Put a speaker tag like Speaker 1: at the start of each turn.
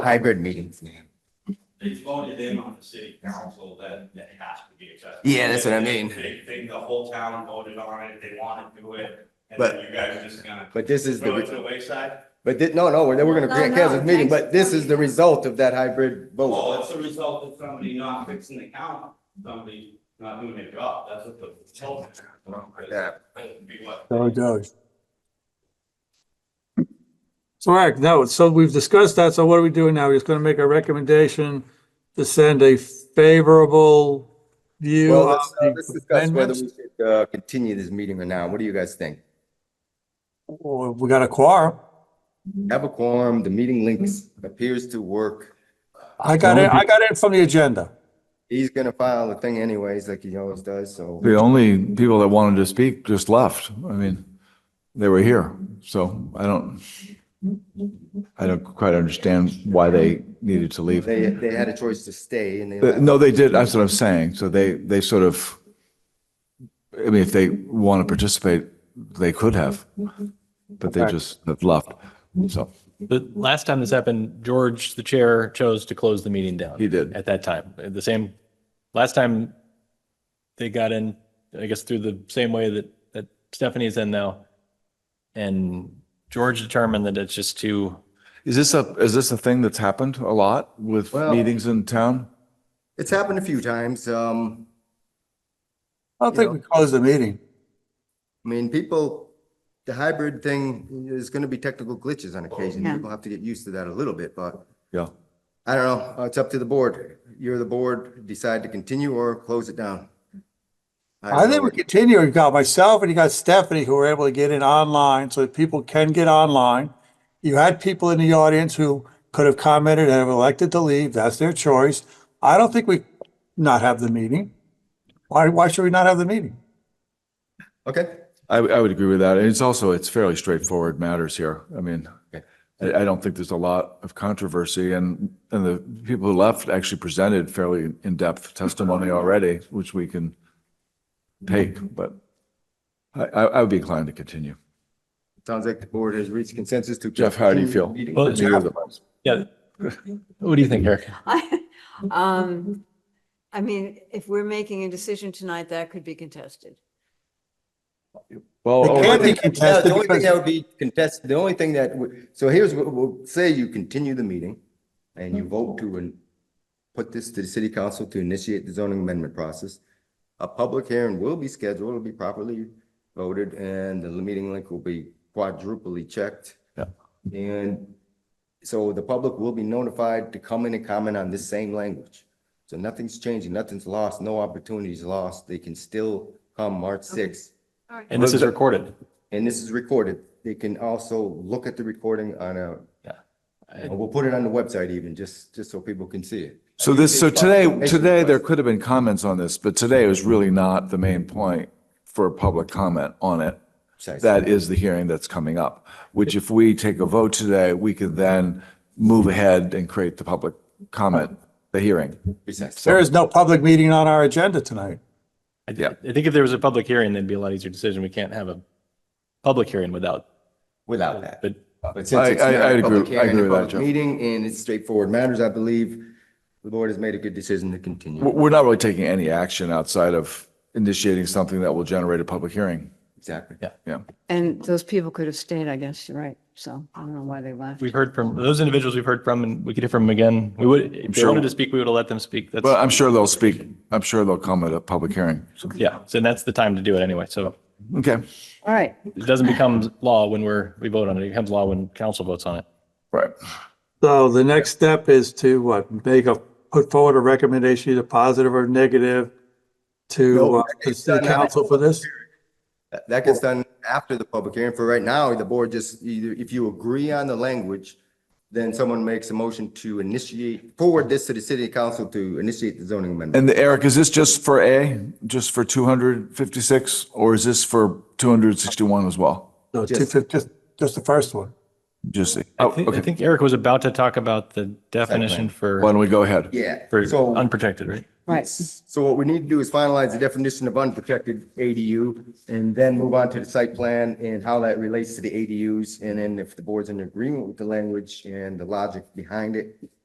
Speaker 1: hybrid meetings.
Speaker 2: They voted in on the city council that it has to be accessible.
Speaker 1: Yeah, that's what I mean.
Speaker 2: They, they, the whole town voted on it, they wanted to do it, and
Speaker 1: But-
Speaker 2: then you guys are just gonna
Speaker 1: But this is
Speaker 2: throw it
Speaker 1: the,
Speaker 2: to the wayside?
Speaker 1: but thi- no, no, we're, we're gonna
Speaker 3: No,
Speaker 1: grant
Speaker 3: no,
Speaker 1: cancel this meeting, but this is the
Speaker 3: next-
Speaker 1: result of that hybrid vote.
Speaker 2: Well, it's a result of somebody not fixing the count, somebody not doing their job, that's what the. result is.
Speaker 1: Yeah.
Speaker 2: That would be what-
Speaker 4: So it does. So, all right, no, so we've discussed that, so what are we doing now? We're just gonna make a recommendation to send a favorable view
Speaker 1: Well,
Speaker 4: of
Speaker 1: let's, uh, let's
Speaker 4: the
Speaker 1: discuss whether
Speaker 4: amendments?
Speaker 1: we should, uh, continue this meeting or not. What do you guys think?
Speaker 4: Or Oh, We got a quorum.
Speaker 1: Have a quorum, the meeting links appears to work.
Speaker 4: I got it, I got it from the agenda.
Speaker 1: He's gonna file the thing anyways, like he always does, so.
Speaker 5: The only people that wanted to speak just left. I mean, they were here. So I don't, I don't quite understand why they needed to leave.
Speaker 1: They, they had a choice to stay and they.
Speaker 5: Uh, No, they did. That's what I'm saying. So they, they sort of, I mean, if they want to participate, they could have, but they just have left. So
Speaker 6: The last time this happened, George, the chair, chose to close the meeting down.
Speaker 5: He did.
Speaker 6: At that time, At the same, last time they got in, I guess through the same way that, that Stephanie's in now. And George determined that it's just too,
Speaker 5: is this a, is this a thing that's happened a lot with
Speaker 1: Well-
Speaker 5: meetings in town?
Speaker 1: It's happened a few times. Um,
Speaker 4: I don't think we closed the meeting.
Speaker 1: I mean, people, the hybrid thing, there's gonna be technical glitches on occasion.
Speaker 3: Yeah.
Speaker 1: People have to get used to that a little bit, but
Speaker 5: Yeah.
Speaker 1: I don't know. Uh, It's up to the board. You're the board, decide to continue or close it down.
Speaker 4: I think we continue. You got myself and you got Stephanie who were able to get in online so that people can get online. You had people in the audience who could have commented and have elected to leave. That's their choice. I don't think we not have the meeting. Why, why should we not have the meeting?
Speaker 1: Okay.
Speaker 5: I, I would agree with that. And it's also, it's fairly straightforward matters here. I mean, I, I don't think there's a lot of controversy and, and the people who left actually presented fairly in-depth testimony already, which we can take, but I, I I would be inclined to continue.
Speaker 1: Sounds like the board has reached consensus to.
Speaker 5: Jeff, how do you feel?
Speaker 1: Meeting.
Speaker 6: Well,
Speaker 5: Neither of us.
Speaker 6: yeah. What do you think, Eric?
Speaker 3: I, um, I mean, if we're making a decision tonight, that could be contested.
Speaker 5: Well,
Speaker 4: It
Speaker 5: oh, I
Speaker 4: can't be
Speaker 5: think-
Speaker 1: Yeah,
Speaker 4: contested
Speaker 1: The only thing that
Speaker 4: because
Speaker 1: would be contested, the only thing that, would- so here's what, we'll say you continue the meeting and you vote to and put this to the city council to initiate the zoning amendment process. A public hearing will be scheduled, it'll be properly voted, and the meeting link will be quadruply checked.
Speaker 5: Yeah.
Speaker 1: And so the public will be notified to come in and comment on this same language. So nothing's changing, nothing's lost, no opportunity's lost. They can still come March sixth
Speaker 3: All right.
Speaker 6: And this is recorded.
Speaker 1: and this is recorded. They can also look at the recording on a,
Speaker 6: I-
Speaker 1: we'll put it on the website even, just, just so people can see it.
Speaker 5: So this, so today, today, there could have been comments on this, but today was really not the main point for public comment on it. That is the hearing that's coming up, which if we take a vote today, we could then move ahead and create the public comment, the hearing.
Speaker 1: Precisely.
Speaker 4: there is no public meeting on our agenda tonight.
Speaker 6: I
Speaker 5: Yeah.
Speaker 6: I think if there was a public hearing, that'd be a lot easier decision. We can't have a public hearing without,
Speaker 1: Without that.
Speaker 6: but
Speaker 1: But since it's
Speaker 5: I- I-
Speaker 1: not a
Speaker 5: I'd agree-
Speaker 1: public hearing,
Speaker 5: I agree
Speaker 1: a
Speaker 5: with that,
Speaker 1: public
Speaker 5: Jeff.
Speaker 1: Meeting and it's straightforward matters, I believe. The board has made a good decision to
Speaker 5: We're
Speaker 1: continue.
Speaker 5: we're not really taking any action outside of initiating something that will generate a public hearing.
Speaker 1: Exactly.
Speaker 5: Yeah.
Speaker 3: And those people could have stayed, I guess, you're right. So I don't know why they left.
Speaker 6: we've heard from, those individuals we've heard from and we could hear from them again. We would, if they
Speaker 5: sure.
Speaker 6: wanted to speak, we would have let them speak. That's.
Speaker 5: But I'm sure they'll speak, I'm sure they'll come at a public hearing. So,
Speaker 6: Yeah, so that's the time to do it anyway. So
Speaker 5: Okay,
Speaker 3: All right.
Speaker 6: it doesn't become law when we're, we vote on it. It becomes law when council votes on it.
Speaker 5: right.
Speaker 4: So the next step is to what, make a, put forward a recommendation, either positive or negative
Speaker 1: No,
Speaker 4: to uh, the
Speaker 1: it's
Speaker 4: city
Speaker 1: not happening.
Speaker 4: council for this?
Speaker 1: That- That gets done after the public hearing. For right now, the board just either, if you agree on the language, then someone makes a motion to initiate, forward this to the city council to initiate the zoning amendment.
Speaker 5: And Eric, is this just for A, just for 256, or is this for 261 as well?
Speaker 4: No,
Speaker 1: Just-
Speaker 4: two fif- just, just the first one.
Speaker 5: Just,
Speaker 6: I
Speaker 5: oh,
Speaker 6: think, I
Speaker 5: okay.
Speaker 6: think Eric was about to talk about the definition
Speaker 5: Why
Speaker 6: for,
Speaker 5: don't we go ahead?
Speaker 1: Yeah,
Speaker 6: for
Speaker 1: so-
Speaker 6: unprotected, right?
Speaker 3: Right.
Speaker 1: So what we need to do is finalize the definition of unprotected ADU and then move on to the site plan and how that relates to the ADUs. And then if the board's in agreement with the language and the logic behind it,